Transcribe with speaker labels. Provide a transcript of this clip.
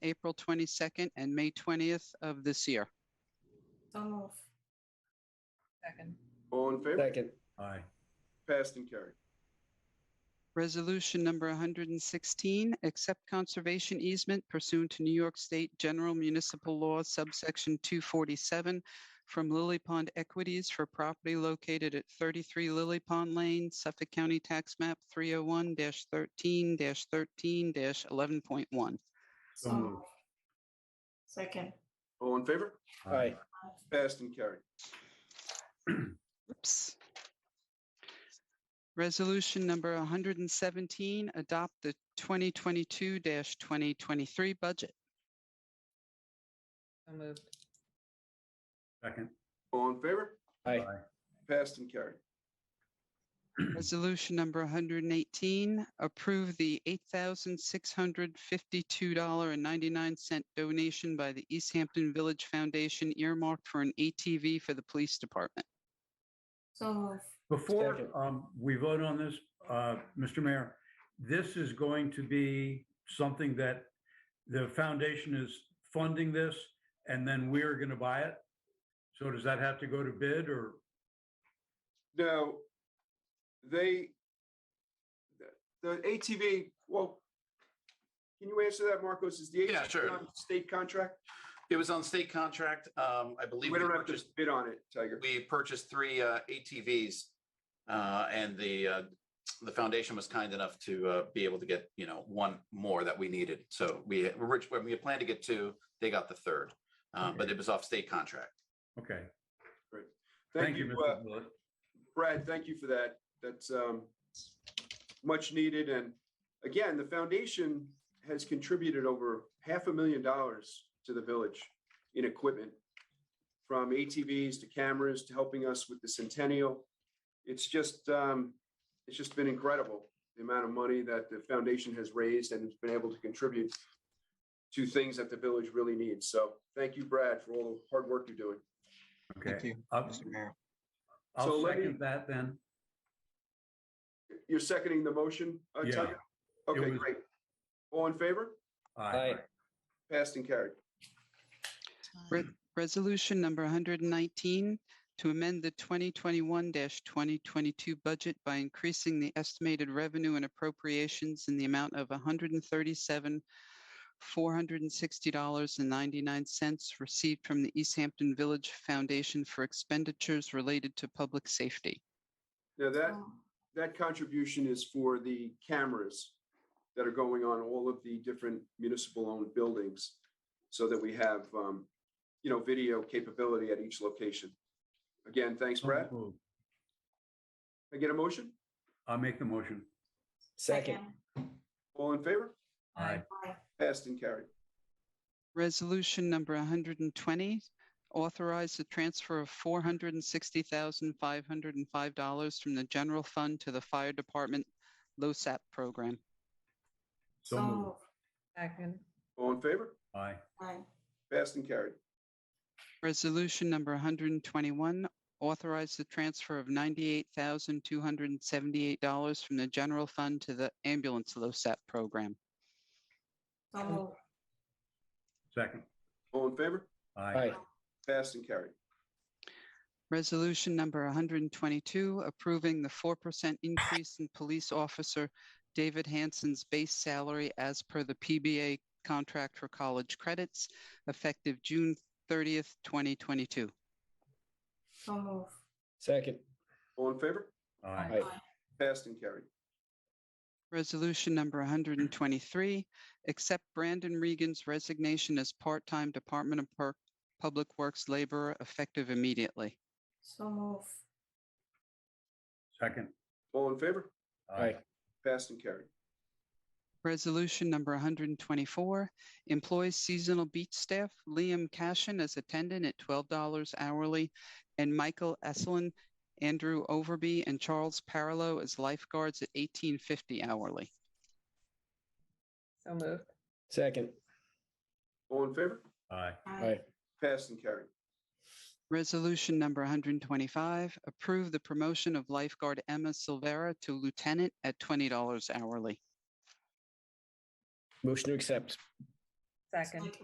Speaker 1: April 22nd, and May 20th of this year.
Speaker 2: So move.
Speaker 3: Second.
Speaker 4: All in favor?
Speaker 5: Second.
Speaker 6: aye,
Speaker 4: Passed and carried.
Speaker 1: Resolution number 116, accept conservation easement pursuant to New York State General Municipal Law subsection 247 from Lily Pond Equities for property located at 33 Lily Pond Lane, Suffolk County Tax Map 301-13-13-11.1.
Speaker 2: So
Speaker 5: So
Speaker 2: move.
Speaker 5: moved.
Speaker 2: Second.
Speaker 4: All in favor?
Speaker 6: aye,
Speaker 4: Passed and carried.
Speaker 1: Oops. Resolution number 117, adopt the 2022-2023 budget.
Speaker 3: So moved.
Speaker 6: second,
Speaker 4: All in favor?
Speaker 5: Aye.
Speaker 4: Passed and carried.
Speaker 1: Resolution number 118, approve the $8,652.99 donation by the East Hampton Village Foundation earmarked for an ATV for the police department.
Speaker 2: So move.
Speaker 6: Before
Speaker 5: Second.
Speaker 6: um, we vote on this, uh, Mr. Mayor, this is going to be something that the foundation is funding this and then we're going to buy it. So does that have to go to bid or?
Speaker 4: Now, they, the- the ATV, well, can you answer that, Marcos? Is the
Speaker 7: Yeah,
Speaker 4: ATV
Speaker 7: sure.
Speaker 4: on state contract?
Speaker 7: It was on state contract. Um, I believe
Speaker 4: We
Speaker 7: we
Speaker 4: don't have to
Speaker 7: purchased,
Speaker 4: bid on it, Tiger.
Speaker 7: we purchased three, uh, ATVs. Uh, and the, uh, the foundation was kind enough to, uh, be able to get, you know, one more that we needed. So we, we were- we had planned to get two, they got the third. Uh, but it was off state contract.
Speaker 6: Okay,
Speaker 4: Thank you, uh,
Speaker 6: Mr. Bullock.
Speaker 4: Brad, thank you for that. That's um, much needed. And again, the foundation has contributed over half a million dollars to the village in equipment, from ATVs to cameras to helping us with the centennial. It's just, um, it's just been incredible, the amount of money that the foundation has raised and has been able to contribute to things that the village really needs. So thank you, Brad, for all the hard work you're doing.
Speaker 8: Thank
Speaker 6: Okay,
Speaker 8: you,
Speaker 6: I'll-
Speaker 8: Mr. Mayor.
Speaker 4: So
Speaker 6: I'll
Speaker 4: let me-
Speaker 6: second that then.
Speaker 4: You're seconding the motion? uh,
Speaker 6: Yeah.
Speaker 4: Tanya? Okay,
Speaker 6: was-
Speaker 4: great. All in favor?
Speaker 6: Aye,
Speaker 4: Passed and carried.
Speaker 1: Re- Resolution number 119, to amend the 2021-2022 budget by increasing the estimated revenue and appropriations in the amount of $137,460.99 received from the East Hampton Village Foundation for expenditures related to public safety.
Speaker 4: Now that,
Speaker 2: So moved.
Speaker 4: that contribution is for the cameras that are going on all of the different municipal owned buildings so that we have, um, you know, video capability at each location. Again, thanks, Brad.
Speaker 6: So moved.
Speaker 4: Can I get a motion?
Speaker 6: I'll make the motion.
Speaker 5: Second.
Speaker 4: All in favor?
Speaker 6: Aye,
Speaker 2: Aye.
Speaker 4: Passed and carried.
Speaker 1: Resolution number 120, authorize the transfer of $460,505 from the general fund to the fire department LoSAP program.
Speaker 6: So
Speaker 2: So
Speaker 6: moved.
Speaker 2: move.
Speaker 3: Second.
Speaker 4: All in favor?
Speaker 6: aye,
Speaker 2: Aye.
Speaker 4: Passed and carried.
Speaker 1: Resolution number 121, authorize the transfer of $98,278 from the general fund to the ambulance LoSAP program.
Speaker 2: So move.
Speaker 6: second,
Speaker 4: All in favor?
Speaker 6: aye,
Speaker 5: Aye.
Speaker 4: Passed and carried.
Speaker 1: Resolution number 122, approving the 4% increase in police officer David Hanson's base salary as per the PBA contract for college credits effective June 30th, 2022.
Speaker 2: So move.
Speaker 5: Second.
Speaker 4: All in favor?
Speaker 6: aye,
Speaker 5: Aye.
Speaker 4: Passed and carried.
Speaker 1: Resolution number 123, accept Brandon Regan's resignation as part-time Department of Per- Public Works laborer effective immediately.
Speaker 2: So move.
Speaker 6: second,
Speaker 4: All in favor?
Speaker 6: aye,
Speaker 4: Passed and carried.
Speaker 1: Resolution number 124, employs seasonal beach staff Liam Cashin as attendant at $12 hourly and Michael Esselin, Andrew Overby, and Charles Parlow as lifeguards at $18.50 hourly.
Speaker 3: So moved.
Speaker 5: Second.
Speaker 4: All in favor?
Speaker 6: aye,
Speaker 5: Aye.
Speaker 4: Passed and carried.
Speaker 1: Resolution number 125, approve the promotion of lifeguard Emma Silvera to lieutenant at $20 hourly.
Speaker 5: Motion to accept.
Speaker 3: second.